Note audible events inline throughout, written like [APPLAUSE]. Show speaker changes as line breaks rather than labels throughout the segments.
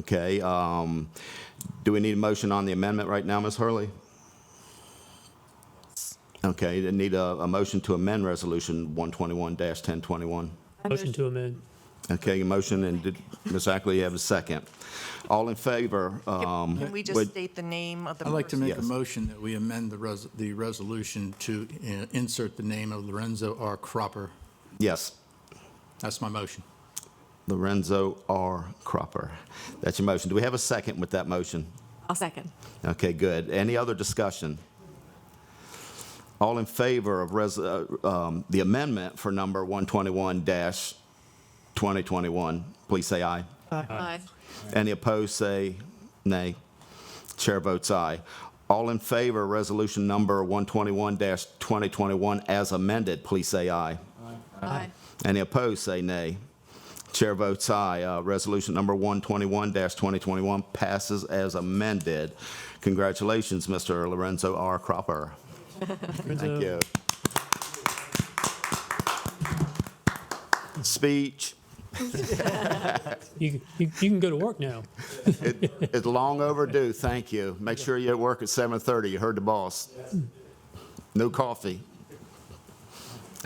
Okay, um, do we need a motion on the amendment right now, Ms. Hurley? Okay, then need a, a motion to amend Resolution 121-1021.
Motion to amend.
Okay, a motion, and did Ms. Ackley have a second? All in favor? um,
Can we just
would-
state the name of the
I'd like to
person?
make a
Yes.
motion that we amend the res, the resolution to uh, insert the name of Lorenzo R. Cropper.
Yes,
That's my motion.
Lorenzo R. Cropper. That's your motion. Do we have a second with that motion?
I'll second.
Okay, good. Any other discussion? All in favor of res, uh, um, the amendment for number 121-2021, please say aye.
Aye.
Any opposed, say nay. Chair votes aye. All in favor, of resolution number 121-2021 as amended, please say aye.
Aye.
Any opposed, say nay. Chair votes aye. Uh, Resolution number 121-2021 passes as amended. Congratulations, Mr. Lorenzo R. Cropper. Thank you. Speech,
You, you, you can go to work now.
It- it's long overdue, thank you. Make sure you work at 7:30, you heard the boss. No coffee.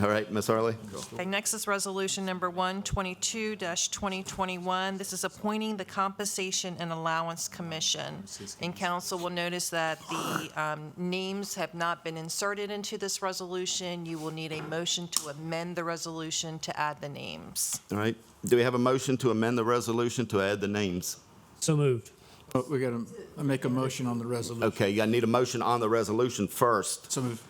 All right, Ms. Hurley?
Okay, next is Resolution Number 122-2021. This is appointing the Compensation and Allowance Commission. And council will notice that the um, names have not been inserted into this resolution. You will need a motion to amend the resolution to add the names.
All right, do we have a motion to amend the resolution to add the names?
So moved.
But Oh, we got to make a motion on the resolution.
Okay, I need a motion on the resolution first.
So moved.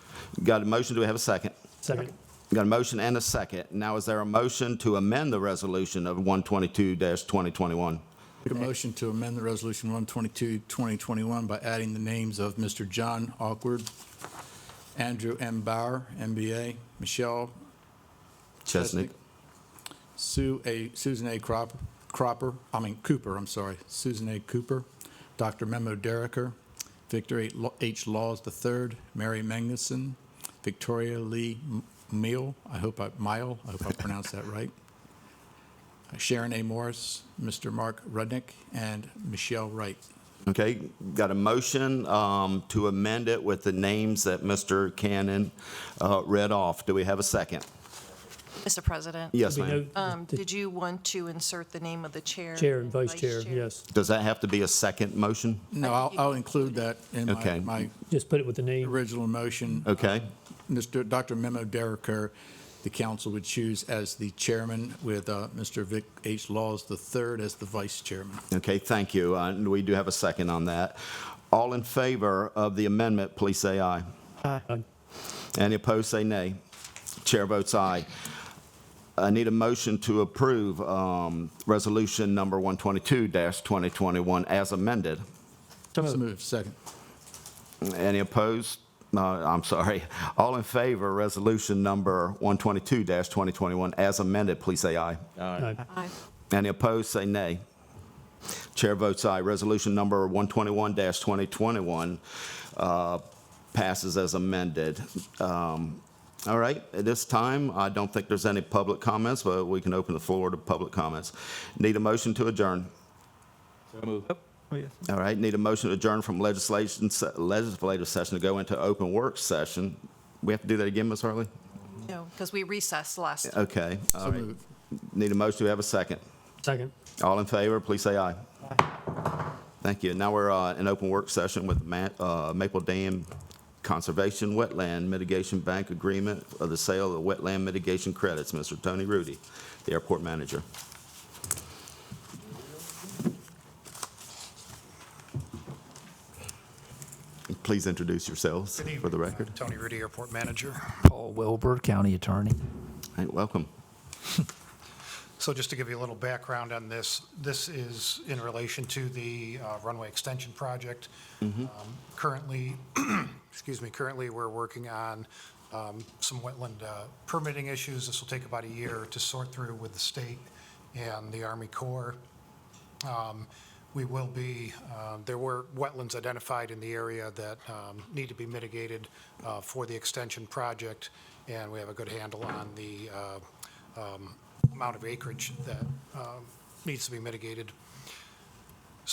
Got a motion, do we have a second?
Second.
Got a motion and a second. Now, is there a motion to amend the resolution of 122-2021?
Make a motion to amend the resolution 122, 2021 by adding the names of Mr. John Awkward, Andrew M. Bauer, MBA, Michelle
Chesnick?
Sue A. Susan A. Crop, Cropper, I mean Cooper, I'm sorry, Susan A. Cooper, Dr. Memo Derricker, Victor H. Law- H. Laws III, Mary Magnuson, Victoria Lee M- Meal, I hope I, Mile, I hope I pronounced that right, uh, Sharon A. Morris, Mr. Mark Rudnick, and Michelle Wright.
Okay, got a motion um, to amend it with the names that Mr. Cannon uh, read off. Do we have a second?
Mr. President?
Yes,
We
ma'am.
note
Um, Did you want to insert the name of the chair?
Chair and vice chair, yes.
Does that have to be a second motion?
No, I'll, I'll include that in
Okay.
my, my
Just put it with the name.
original motion.
Okay,
Mr. Dr. Memo Derricker, the council would choose as the chairman with uh, Mr. Vic H. Laws III as the vice chairman.
okay, thank you. Uh, and We do have a second on that. All in favor of the amendment, please say aye.
Aye.
Any opposed, say nay. Chair votes aye. I need a motion to approve um, Resolution Number 122-2021 as amended.
So moved, second.
Any opposed? No, I'm sorry. All in favor, Resolution Number 122-2021 as amended, please say aye.
Aye.
Aye.
Any opposed, say nay. Chair votes aye. Resolution Number 121-2021 uh, passes as amended. Um, All right, at this time, I don't think there's any public comments, but we can open the floor to public comments. Need a motion to adjourn.
Oh, yes.
All right, need a motion to adjourn from legislation, se- legislative session to go into open work session. We have to do that again, Ms. Harley?
No, because we recessed last.
Okay, all right. Need a motion, do we have a second?
Second.
All in favor, please say aye. Thank you. Now we're uh, in open work session with Ma- uh, Maple Dam Conservation Wetland Mitigation Bank Agreement of the sale of wetland mitigation credits. Mr. Tony Rudy, the airport manager. Please introduce yourselves for the record.
Tony Rudy, Airport Manager. Paul Wilbur, County Attorney.
Hey, Welcome.
So just to give you a little background on this, this is in relation to the uh, runway extension project.
Mm-hmm.
Um, Currently, [CLEARS THROAT] excuse me, currently, we're working on um, some wetland uh, permitting issues. This will take about a year to sort through with the state and the Army Corps. Um, We will be, uh, there were wetlands identified in the area that um, need to be mitigated uh, for the extension project, and we have a good handle on the uh, um, amount of acreage that um, needs to be mitigated.